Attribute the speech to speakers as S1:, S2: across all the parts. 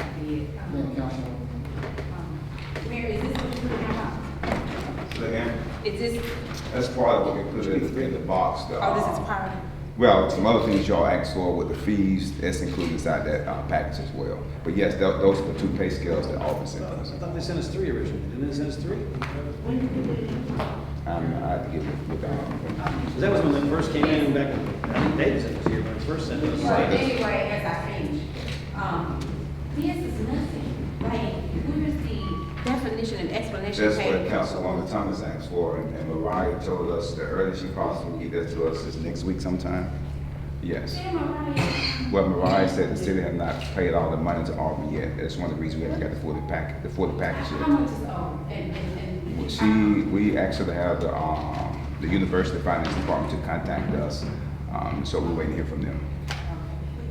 S1: Yes.
S2: Mayor, Council.
S1: Mayor, is this what you put in your box?
S3: Second.
S1: Is this,
S3: That's part of what we put in, in the box, though.
S1: oh, this is prior?
S3: Well, some other things y'all asked for with the fees, that's included inside that, uh, package as well. But yes, tho- those are the two pay scales that Alvin sent
S4: I
S3: us.
S4: thought they sent us three originally, didn't they send us three?
S3: I'm, I have to get with, with, um,
S4: 'Cause that was when they first came in back, I think David sent us here, when it first sent us.
S1: Well, anyway, as I finish, um, this is nothing, like, where's the definition and explanation
S3: that's what
S1: page?
S3: Councilwoman Thomas asked for, and and Mariah told us the earliest she possibly can get that to us is next week sometime. Yes.
S1: Damn, I'm right.
S3: Well, Mariah said the city had not paid all the money to Alvin yet, that's one of the reasons we haven't got the full pack, the full package yet.
S1: How much is owed? And, and, and.
S3: Well, She, we actually have the, um, the University Finance Department to contact us, um, so we're waiting to hear from them.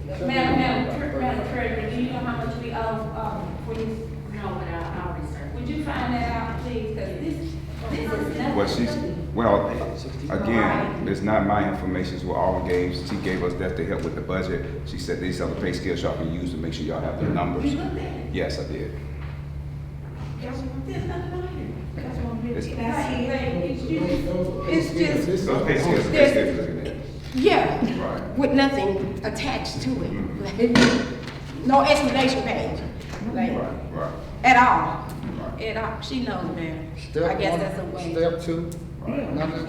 S1: Madam, Madam, Tre- Madam Treasurer, do you know how much we owe, um, for this? No, but I'll, I'll research. Would you find that out, please, cause this, this is nothing.
S3: Well, she's, well, again, it's not my information, it's what Alvin gave, she gave us that to help with the budget. She said these are the pay scales y'all can use to make sure y'all have the
S1: You
S3: numbers.
S1: looked at it?
S3: Yes, I did.
S1: There's nothing on here. That's one
S3: It's-
S1: Like, like, it's just,
S2: Those-
S5: It's just-
S2: those-
S3: Those pay scales, pay scales, look at that.
S5: Yeah,
S3: Right.
S5: with nothing attached to it. No explanation page, like,
S3: Right, right,
S5: at all,
S3: right.
S5: at all. She knows better. I
S2: Step
S5: guess
S2: one,
S5: that's a way.
S2: Step two, nothing.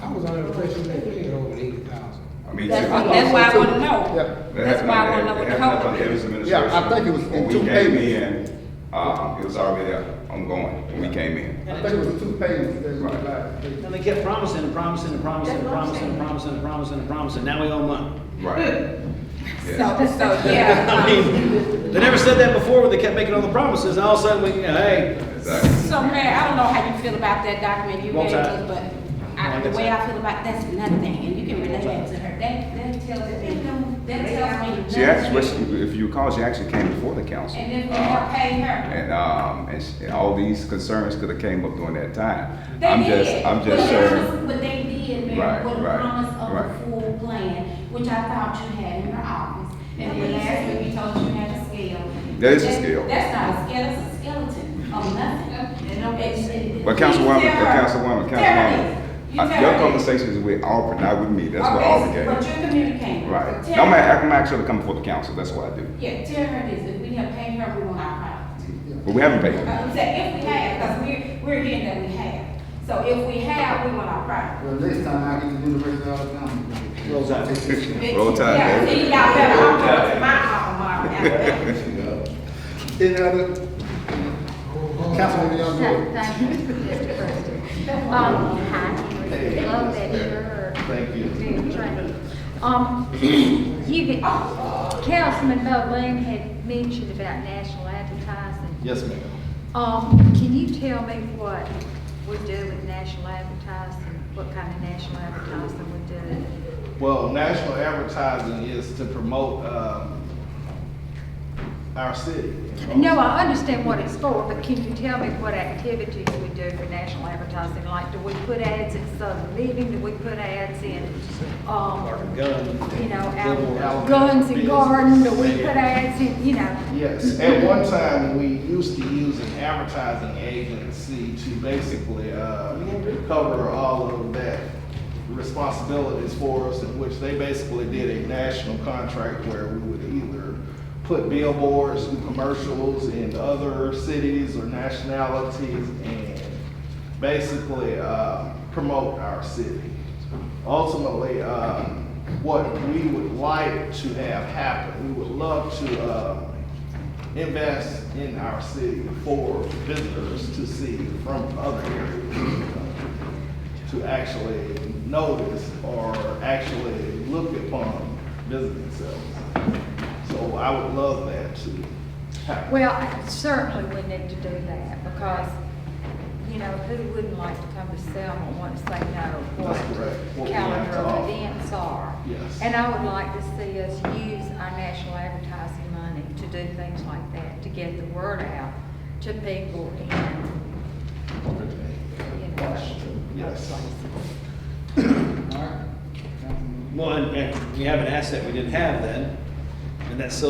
S6: I was under the impression they paid over eighty thousand.
S3: I mean,
S5: That's
S3: too.
S5: why, that's why I wanna know.
S2: Yeah.
S5: That's why I wanna know what the
S3: happened
S5: code is.
S3: under Evans
S2: Yeah, I think it was in
S3: administration. When
S2: two
S3: we came
S2: payments.
S3: in, Uh, it was already ongoing when we came in.
S2: I think it was two payments that we
S3: Right.
S2: applied.
S4: And they kept promising and promising and promising and promising and promising and promising and promising, now we owe money.
S1: Hmm.
S5: So,
S3: Right. Yeah.
S5: so, yeah.
S4: I mean, they never said that before, when they kept making all the promises, and all of a sudden, we, you know, hey,
S3: Exactly.
S5: So Mary, I don't know how you feel about that document you read
S4: Won't
S5: to,
S4: I?
S5: us, but I, the way I feel about, that's nothing, and you can relate that to her.
S1: that, that tells, me- that tells me.
S3: She actually, well,
S1: nothing.
S3: she- if you recall, she actually came before the council.
S1: And then we have paid her.
S3: And, um, and she- and all these concerns could have came up during that time.
S1: They
S3: I'm just,
S1: did.
S3: I'm just
S1: But that
S3: sure.
S1: was- But they did, Mayor,
S3: Right,
S1: with a
S3: right,
S1: promise of
S3: right.
S1: a full plan, which I thought you had in your office. And when last week you told us you had a scale.
S3: That is a scale.
S1: That's not a scale, it's a skeleton of nothing. And I'm- and- and-
S3: But Councilwoman,
S1: Please
S3: but
S1: tell her.
S3: Councilwoman,
S1: Tell her
S3: Councilwoman,
S1: this. You
S3: uh,
S1: tell
S3: your
S1: her this.
S3: conversation is with Alfred, not with me. That's what
S1: Okay,
S3: Alfred
S1: But
S3: gave.
S1: you're communicating.
S3: Right.
S1: So
S3: No, I'm,
S1: tell her-
S3: act- I'm actually coming before the council. That's what I do.
S1: Yeah, tell her this, if we have paid her, we want our property.
S3: But we haven't paid her.
S1: Uh, say if we have, because we're, we're hearing that we have. So if we have, we want our property.
S2: Well, next time I get the University of Alabama.
S4: Rolls out.
S3: Roll Tide,
S1: Yeah,
S3: baby.
S1: see, y'all better, I'm going to my alma mater. Alabama.
S2: Any other? Councilwoman Youngboy.
S7: Thank you, Mr. President. Um, hi, love that you're. Thank you. Um, you, get- Councilman Bowen had mentioned about national advertising.
S8: Yes, ma'am.
S7: Um, can you tell me what we do with national advertising, what kind of national advertising we do?
S8: Well, national advertising is to promote, um, our city.
S7: No, I understand what it's for, but can you tell me what activities we do for national advertising? Like, do we put ads in Southern Living? Do we put ads in, um,
S4: Gun.
S7: you know,
S8: Billboard.
S7: out Guns and Garden, do we put ads in, you know?
S8: Yes, at one time, we used to use an advertising agency to basically, uh, cover all of that responsibilities for us, in which they basically did a national contract where we would either put billboards and commercials in other cities or nationalities and basically, uh, promote our city ultimately, um, what we would like to have happen, we would love to, uh, invest in our city for visitors to see from other areas of the country, to actually notice or actually look upon visiting themselves. So I would love that to happen.
S7: Well, I- certainly we need to do that, because, you know, who wouldn't like to come to Selma once they know
S8: That's correct. What
S7: what
S8: we have
S7: calendar
S8: to
S7: of
S8: offer.
S7: events are?
S8: Yes.
S7: And I would like to see us use our national advertising money to do things like that, to get the word out to people in, you know,
S8: Yes.
S7: other places.
S2: All right. Councilwoman.
S4: Well, and- and we have an asset we didn't have then, and that's social